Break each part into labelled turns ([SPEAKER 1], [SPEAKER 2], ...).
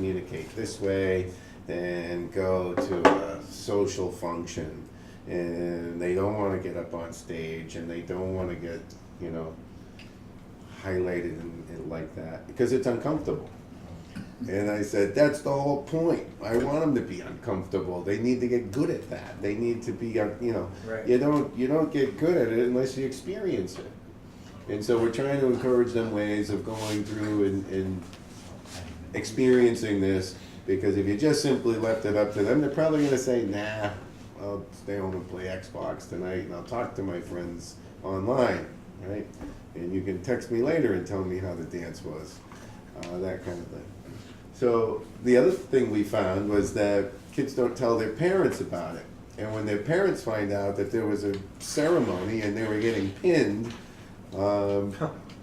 [SPEAKER 1] communicate this way and go to a social function. And they don't want to get up on stage and they don't want to get, you know, highlighted and, and like that because it's uncomfortable. And I said, that's the whole point. I want them to be uncomfortable. They need to get good at that. They need to be, uh, you know,
[SPEAKER 2] Right.
[SPEAKER 1] you don't you don't get good at it unless you experience it. And so we're trying to encourage them ways of going through and, and experiencing this because if you just simply left it up to them, they're probably going to say, nah, I'll stay home and play Xbox tonight and I'll talk to my friends online, right? And you can text me later and tell me how the dance was, uh, that kind of thing. So the other thing we found was that kids don't tell their parents about it. And when their parents find out that there was a ceremony and they were getting pinned, um,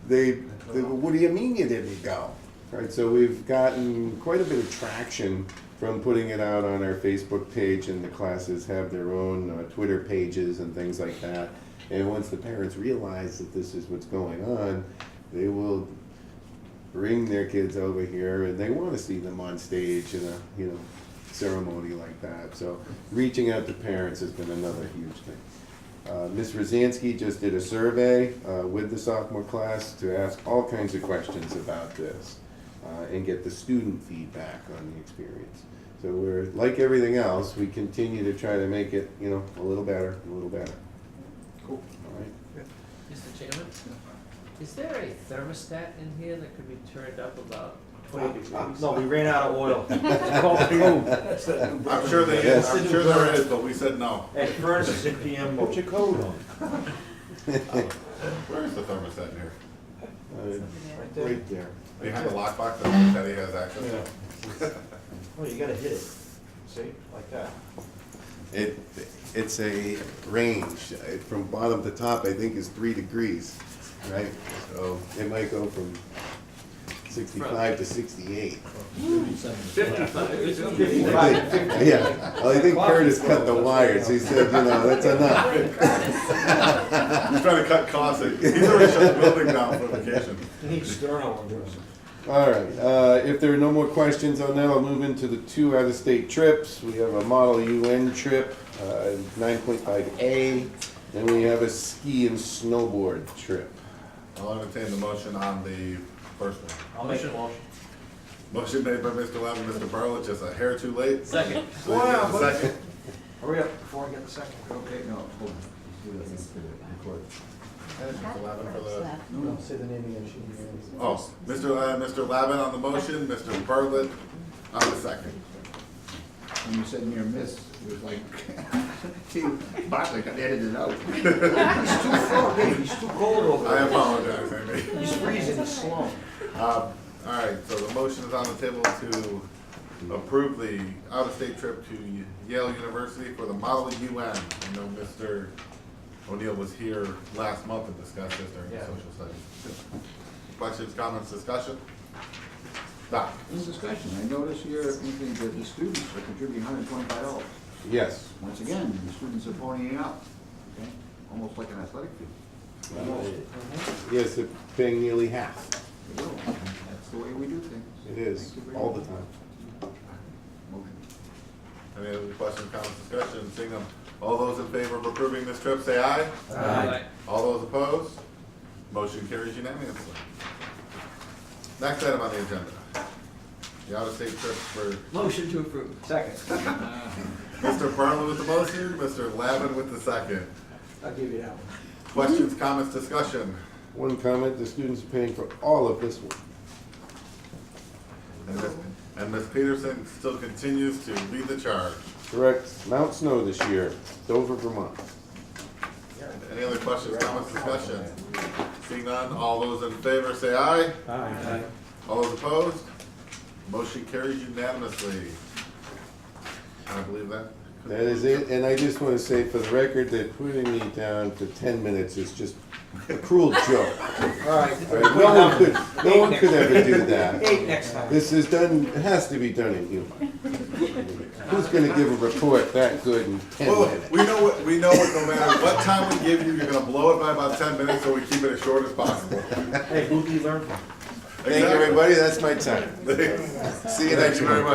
[SPEAKER 1] they, they go, what do you mean you didn't go? Right, so we've gotten quite a bit of traction from putting it out on our Facebook page, and the classes have their own uh, Twitter pages and things like that. And once the parents realize that this is what's going on, they will bring their kids over here and they want to see them on stage in a you know ceremony like that so reaching out to parents has been another huge thing uh, Ms. Rosansky just did a survey uh, with the sophomore class to ask all kinds of questions about this uh, and get the student feedback on the experience. So we're, like everything else, we continue to try to make it, you know, a little better, a little better.
[SPEAKER 2] Cool.
[SPEAKER 1] All right?
[SPEAKER 3] Mr. Chairman, is there a thermostat in here that could be turned up about twenty degrees?
[SPEAKER 2] Uh, No, we ran out of oil. It's called fuel.
[SPEAKER 4] I'm sure they is, I'm sure there is, but we said no.
[SPEAKER 2] And furnace is in PM mode.
[SPEAKER 5] your coat on.
[SPEAKER 4] Where is the thermostat here?
[SPEAKER 1] Uh,
[SPEAKER 2] Right there.
[SPEAKER 1] Right there.
[SPEAKER 4] Behind the lockbox that Teddy has access to?
[SPEAKER 2] Oh, you gotta hit it. See, like that.
[SPEAKER 1] It, it's a range, uh, from bottom to top, I think is three degrees, right? So it might go from sixty-five to sixty-eight.
[SPEAKER 2] Fifty-five.
[SPEAKER 1] Yeah, well, I think Curtis cut the wires, he said, you know, that's enough.
[SPEAKER 4] He's trying to cut costs, he's already shut the building down for vacation.
[SPEAKER 2] You need sterno on this.
[SPEAKER 1] All right, uh, if there are no more questions on that, I'll move into the two out-of-state trips. We have a Model UN trip, uh, nine point five A, then we have a ski and snowboard trip.
[SPEAKER 4] I'll entertain the motion on the first one.
[SPEAKER 2] I'll make a motion.
[SPEAKER 4] Motion made by Mr. Levin, Mr. Burley, just a hair too late.
[SPEAKER 3] Second.
[SPEAKER 4] Please get the
[SPEAKER 2] Wow.
[SPEAKER 4] Second.
[SPEAKER 2] Hurry up before I get the second. Okay, no, hold on.
[SPEAKER 4] And Mr. Levin for the-
[SPEAKER 5] No, no, say the name again, she didn't hear it.
[SPEAKER 4] Oh, Mr. La- Mr. Lavin on the motion, Mr. Burley on the second.
[SPEAKER 6] when you said near miss, it was like, gee, Bartlett got edited out.
[SPEAKER 2] He's too cold, hey, he's too cold over
[SPEAKER 4] I
[SPEAKER 2] there.
[SPEAKER 4] apologize, Amy.
[SPEAKER 2] He's freezing, he's slow.
[SPEAKER 4] Um, all right, so the motion is on the table to approve the out-of-state trip to Yale University for the Model UN. I know Mr. O'Neill was here last month and discussed this during the
[SPEAKER 2] Yeah.
[SPEAKER 4] social studies. Questions, comments, discussion? Doc,
[SPEAKER 6] This discussion, I notice here, anything that the students are contributing hundred and twenty-five dollars.
[SPEAKER 1] Yes.
[SPEAKER 6] Once again, the students are ponying up, okay, almost like an athletic field.
[SPEAKER 1] Uh, Yes, they're paying nearly half.
[SPEAKER 6] They will. That's the way we do things.
[SPEAKER 1] It is,
[SPEAKER 6] Thank you very
[SPEAKER 1] all the
[SPEAKER 6] much.
[SPEAKER 1] time.
[SPEAKER 6] Motion.
[SPEAKER 4] any other questions, comments, discussion? Seeing none, all those in favor of approving this trip, say aye.
[SPEAKER 3] Aye.
[SPEAKER 4] All those opposed? Motion carries unanimously. Next item on the agenda, the out-of-state trip for
[SPEAKER 3] Motion to approve.
[SPEAKER 2] Second,
[SPEAKER 4] Mr. Burnley with the motion, Mr. Lavin with the second.
[SPEAKER 2] I'll give you that one.
[SPEAKER 4] Questions, comments, discussion?
[SPEAKER 1] One comment, the students are paying for all of this one.
[SPEAKER 4] And Ms- And Ms. Peterson still continues to lead the charge.
[SPEAKER 1] Correct, Mount Snow this year, Dover, Vermont.
[SPEAKER 4] Any other questions, comments, discussion? Seeing none, all those in favor say aye.
[SPEAKER 2] Aye.
[SPEAKER 4] All those opposed? Motion carries unanimously. Can I believe that?
[SPEAKER 1] That is it, and I just wanna say for the record that putting me down for ten minutes is just a cruel joke.
[SPEAKER 2] All right,
[SPEAKER 1] All right, No one could, no one could ever do that.
[SPEAKER 2] eight next time.
[SPEAKER 1] This is done, it has to be done in humor. Who's gonna give a report that good in ten
[SPEAKER 4] Well,
[SPEAKER 1] minutes?
[SPEAKER 4] we know what, we know what, no matter what time we give you, you're gonna blow it by about ten minutes, so we keep it as short as possible.
[SPEAKER 2] Hey, Boogie learned.
[SPEAKER 1] Thank you, everybody, that's my time. See you
[SPEAKER 4] Thank
[SPEAKER 1] next
[SPEAKER 4] you very
[SPEAKER 1] month.
[SPEAKER 4] much.